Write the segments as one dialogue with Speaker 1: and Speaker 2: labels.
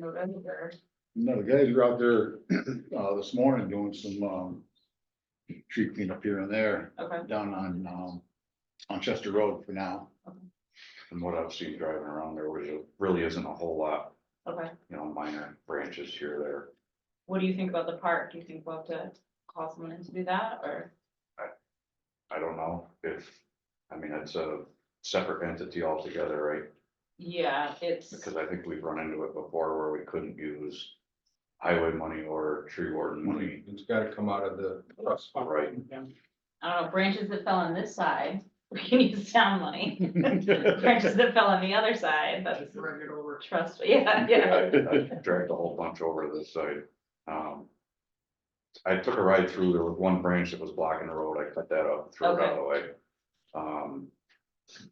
Speaker 1: the vendor.
Speaker 2: No, the guys were out there, uh, this morning doing some, um, tree cleanup here and there,
Speaker 1: Okay,
Speaker 2: down on, um, on Chester Road for now.
Speaker 3: From what I've seen driving around, there really, really isn't a whole lot,
Speaker 1: okay.
Speaker 3: you know, minor branches here or there.
Speaker 1: What do you think about the park? Do you think we'll have to call someone in to do that or?
Speaker 3: I don't know if, I mean, it's a separate entity altogether, right?
Speaker 1: Yeah, it's,
Speaker 3: Because I think we've run into it before where we couldn't use highway money or tree warden money.
Speaker 4: It's gotta come out of the trust. fund.
Speaker 3: Right.
Speaker 1: I don't know, branches that fell on this side, we can use town money. Branches that fell on the other side, that's
Speaker 5: Bring it over.
Speaker 1: trust, yeah, yeah.
Speaker 3: I I Dragged a whole bunch over to this side. Um. I took a ride through, there was one branch that was blocking the road, I cut that up, threw it out of the way. Um.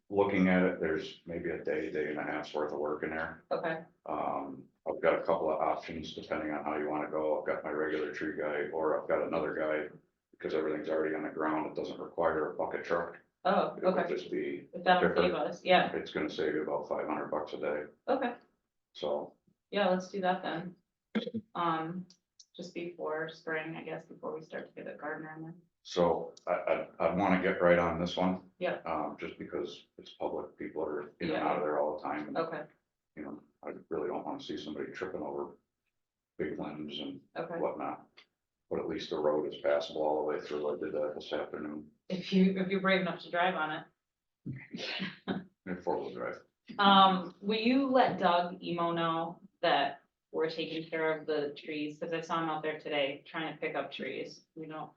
Speaker 3: Looking at it, there's maybe a day, day and a half's worth of work in there.
Speaker 1: Okay,
Speaker 3: Um, I've got a couple of options depending on how you wanna go. I've got my regular tree guy or I've got another guy. Because everything's already on the ground. It doesn't require a bucket truck.
Speaker 1: oh,
Speaker 3: It would
Speaker 1: okay.
Speaker 3: just be,
Speaker 1: If that'll save us, yeah,
Speaker 3: it's gonna save you about five hundred bucks a day.
Speaker 1: okay.
Speaker 3: So
Speaker 1: Yeah, let's do that then. Um, just before spring, I guess, before we start to get a gardener in there.
Speaker 3: So I, I, I wanna get right on this one.
Speaker 1: Yeah.
Speaker 3: Um, just because it's public, people are in and out of there all the time. and,
Speaker 1: Okay,
Speaker 3: You know, I really don't wanna see somebody tripping over big limbs and
Speaker 1: okay.
Speaker 3: whatnot. But at least the road is passable all the way through. I did that this afternoon
Speaker 1: If you, if you're brave enough to drive on it.
Speaker 3: in four-wheel drive.
Speaker 1: Um, will you let Doug Emo know that we're taking care of the trees? Cause I saw him out there today trying to pick up trees. We don't.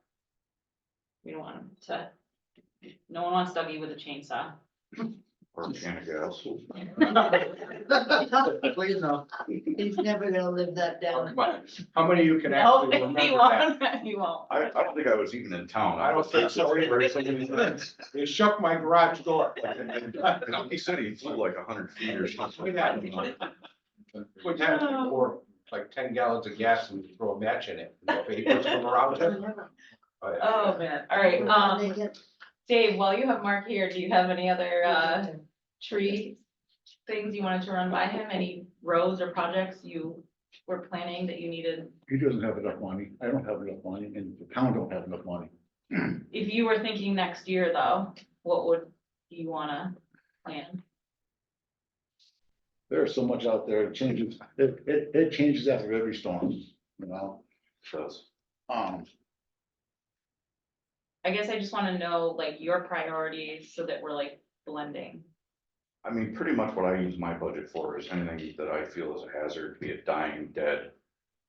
Speaker 1: We don't want him to. No one wants Dougie with a chainsaw.
Speaker 3: Or a can of gas.
Speaker 5: Please no.
Speaker 6: He's never gonna live that down.
Speaker 4: How many of you can
Speaker 1: No,
Speaker 4: actually
Speaker 1: he
Speaker 4: remember that?
Speaker 1: won't, he won't.
Speaker 3: I, I don't think I was even in town.
Speaker 4: I don't think so either. They shook my garage door.
Speaker 3: He said he flew like a hundred feet or something.
Speaker 4: Yeah. What time did you pour, like ten gallons of gas and throw a match in it? The Vapors come around it. Oh, yeah.
Speaker 1: Oh, man, all right,
Speaker 6: They
Speaker 1: um,
Speaker 6: get-
Speaker 1: Dave, while you have Mark here, do you have any other, uh, tree things you wanted to run by him, any roads or projects you were planning that you needed?
Speaker 2: He doesn't have enough money, I don't have enough money, and the town don't have enough money.
Speaker 1: If you were thinking next year though, what would you wanna plan?
Speaker 2: There's so much out there, it changes, it, it, it changes after every storm, you know,
Speaker 3: Does.
Speaker 2: um.
Speaker 1: I guess I just wanna know like your priorities so that we're like blending.
Speaker 3: I mean, pretty much what I use my budget for is anything that I feel is a hazard, be it dying, dead.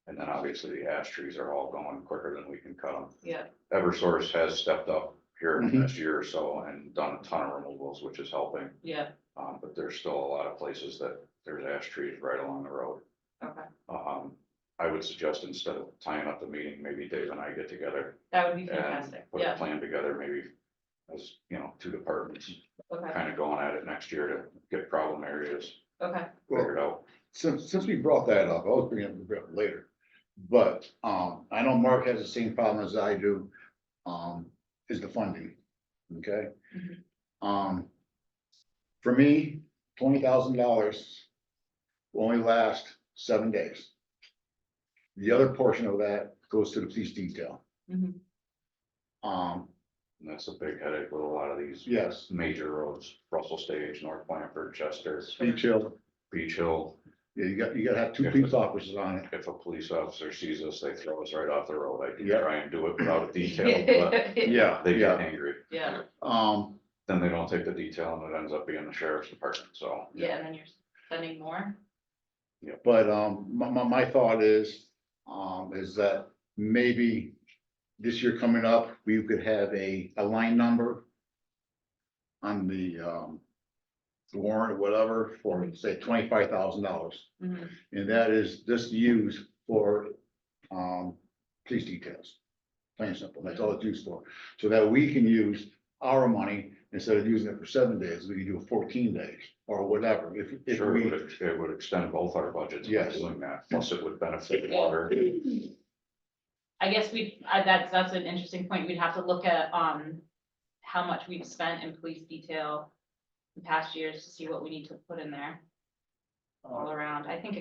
Speaker 3: And then obviously the ash trees are all going quicker than we can cut them.
Speaker 1: Yeah.
Speaker 3: Eversource has stepped up here in
Speaker 2: Mhm.
Speaker 3: the last year or so and done a ton of removals, which is helping.
Speaker 1: Yeah,
Speaker 3: Um, but there's still a lot of places that there's ash trees right along the road.
Speaker 1: okay,
Speaker 3: Um, I would suggest instead of tying up the meeting, maybe Dave and I get together
Speaker 1: that would be
Speaker 3: and
Speaker 1: fantastic,
Speaker 3: put a
Speaker 1: yeah,
Speaker 3: plan together, maybe. As, you know, two departments,
Speaker 1: okay,
Speaker 3: kind of going at it next year to get problem areas
Speaker 1: okay,
Speaker 3: figured out.
Speaker 2: since, since we brought that up, I was bringing it up later. But, um, I know Mark has the same problem as I do, um, is the funding, okay?
Speaker 1: Mhm.
Speaker 3: Mm-hmm.
Speaker 2: Um, for me, twenty thousand dollars will only last seven days. The other portion of that goes to the police detail.
Speaker 1: Mhm.
Speaker 2: Um,
Speaker 3: And Mm-hmm. that's a big headache with a lot of these
Speaker 2: yes,
Speaker 3: major roads, Russell Stage, North Blanford, Chester,
Speaker 2: beach hill,
Speaker 3: Beach Hill.
Speaker 2: yeah, you got, you gotta have two police officers on it.
Speaker 3: If a police officer sees us, they throw us right off the road. I can
Speaker 2: Yeah.
Speaker 3: try and do it without a detail, but
Speaker 2: Yeah,
Speaker 3: they get
Speaker 2: yeah,
Speaker 3: angry.
Speaker 1: yeah,
Speaker 2: um,
Speaker 3: Then they don't take the detail and it ends up being the sheriff's department, so.
Speaker 1: yeah, and then you're spending more,
Speaker 2: But um, my, my, my thought is, um, is that maybe this year coming up, we could have a, a line number on the um, the warrant or whatever for, say, twenty-five thousand dollars.
Speaker 1: Mhm.
Speaker 2: And that is just used for um, police details. Plain and simple, that's all it's used for. So that we can use our money instead of using it for seven days, we can do it fourteen days or whatever. If, if
Speaker 3: Sure, it
Speaker 2: we,
Speaker 3: would, it would extend both our budgets by
Speaker 2: Yes.
Speaker 3: doing that, plus it would benefit water.
Speaker 1: I guess we, I, that's, that's an interesting point, we'd have to look at, um, how much we've spent in police detail in past years to see what we need to put in there all around, I think